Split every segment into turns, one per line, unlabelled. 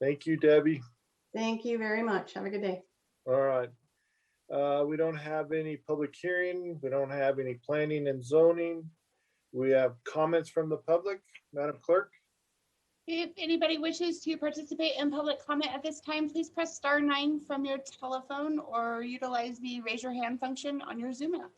Thank you, Debbie.
Thank you very much. Have a good day.
All right. Uh, We don't have any public hearing. We don't have any planning and zoning. We have comments from the public. Madam Clerk?
If anybody wishes to participate in public comment at this time, please press star nine from your telephone or utilize the raise your hand function on your Zoom app.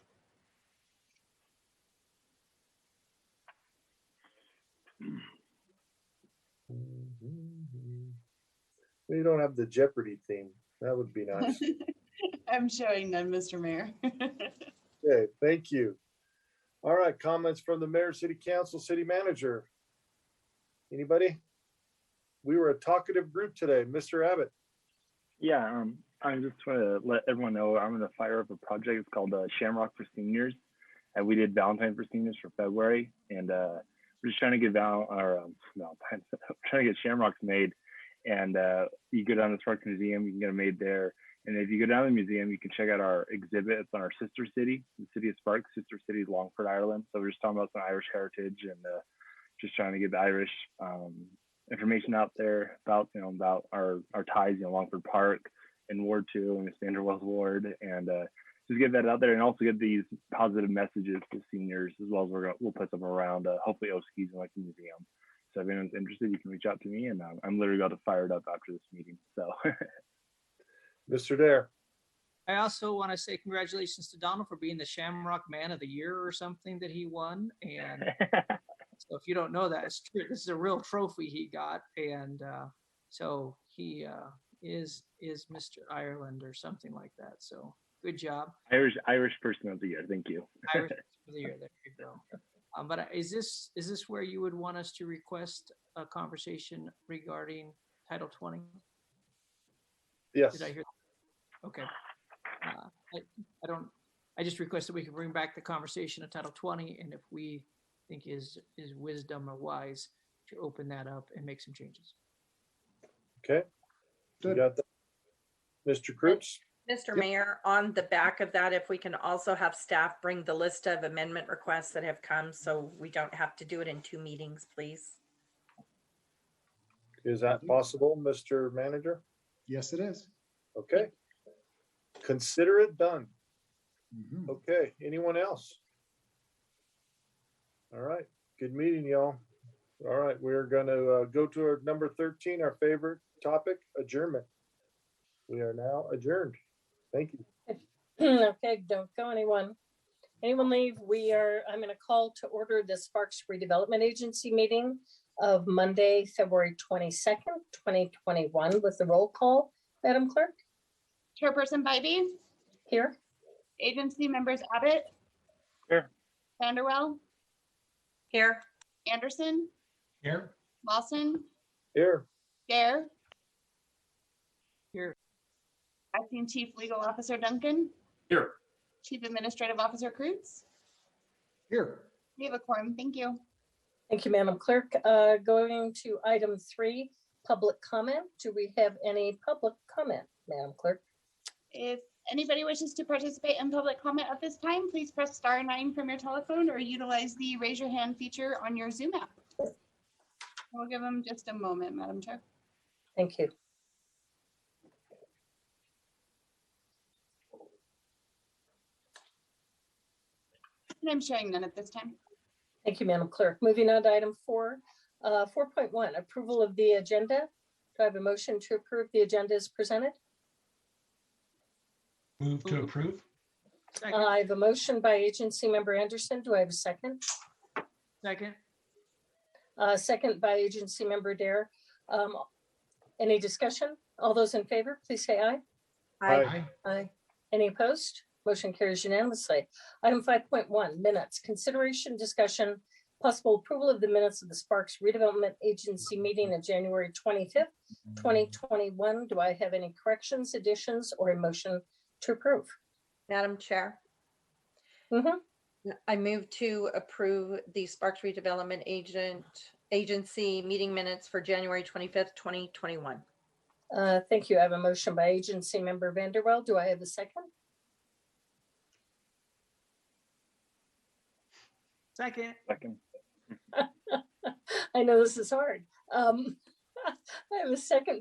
We don't have the Jeopardy theme. That would be nice.
I'm showing none, Mr. Mayor.
Okay, thank you. All right, comments from the mayor, city council, city manager. Anybody? We were a talkative group today. Mr. Abbott?
Yeah, um, I just want to let everyone know I'm gonna fire up a project. It's called uh, Shamrock for Seniors, and we did Valentine for Seniors for February, and uh, we're just trying to get Val or um, Valentine's, trying to get Shamrocks made. And uh, you go down to the Sparks Museum, you can get them made there. And if you go down to the museum, you can check out our exhibit. It's on our sister city, the city of Sparks, sister city is Longford, Ireland. So we're just talking about some Irish heritage and uh, just trying to get the Irish um, information out there about you know about our our ties you know Longford Park and Ward Two and Sandra Wells Ward and uh, just get that out there and also get these positive messages to seniors as well as we're gonna, we'll put them around uh, hopefully Oskies and like the museum. So if anyone's interested, you can reach out to me and um, I'm literally about to fire it up after this meeting. So
Mr. Dare?
I also want to say congratulations to Donald for being the Shamrock Man of the Year or something that he won. And so if you don't know that, it's true. This is a real trophy he got. And uh, so he uh, is is Mr. Ireland or something like that. So good job.
Irish Irish person of the year, thank you.
Irish Man of the Year. There you go. Um, but is this is this where you would want us to request a conversation regarding Title 20?
Yes.
Did I hear? Okay. Uh, I I don't, I just request that we can bring back the conversation of Title 20 and if we think is, is wisdom or wise to open that up and make some changes.
Okay. You got that? Mr. Crouch?
Mr. Mayor, on the back of that, if we can also have staff bring the list of amendment requests that have come, so we don't have to do it in two meetings, please.
Is that possible, Mr. Manager?
Yes, it is.
Okay. Consider it done.
Mhm.
Okay, anyone else? All right, good meeting, y'all. All right, we're gonna uh, go to our number thirteen, our favorite topic, adjournment. We are now adjourned. Thank you.
Okay, don't go anyone. Anyone leave? We are, I'm going to call to order the Sparks Redevelopment Agency meeting of Monday, February 22nd, 2021 with the roll call. Madam Clerk,
Chairperson Bybee,
here.
agency members Abbott.
Here.
Vanderwell,
Here.
Anderson,
Here.
Lawson,
Here,
Gare.
Here.
Acting Chief Legal Officer Duncan.
Here.
Chief Administrative Officer Cruz.
Here.
We have a quorum. Thank you.
Thank you, Madam Clerk. Uh, Going to item three, public comment. Do we have any public comment, Madam Clerk?
If anybody wishes to participate in public comment at this time, please press star nine from your telephone or utilize the raise your hand feature on your Zoom app. We'll give them just a moment, Madam Chair.
Thank you.
And I'm showing none at this time.
Thank you, Madam Clerk. Moving on to item four, uh, 4.1, approval of the agenda. Do I have a motion to approve the agenda as presented?
Move to
Move.
approve?
Uh, I have a motion by agency member Anderson. Do I have a second?
Second,
Uh, Second by agency member Dare. Um, Any discussion? All those in favor, please say aye.
Aye.
Aye.
Aye. Any opposed? Motion carries unanimously. Item 5.1, minutes. Consideration, discussion, possible approval of the minutes of the Sparks Redevelopment Agency meeting of January 25th, 2021. Do I have any corrections, additions, or a motion to approve?
Madam Chair,
Mhm.
I move to approve the Sparks Redevelopment Agent Agency meeting minutes for January 25th, 2021.
Uh, Thank you. I have a motion by agency member Vanderwell. Do I have a second?
second,
Second.
I know this is hard. Um, I have a second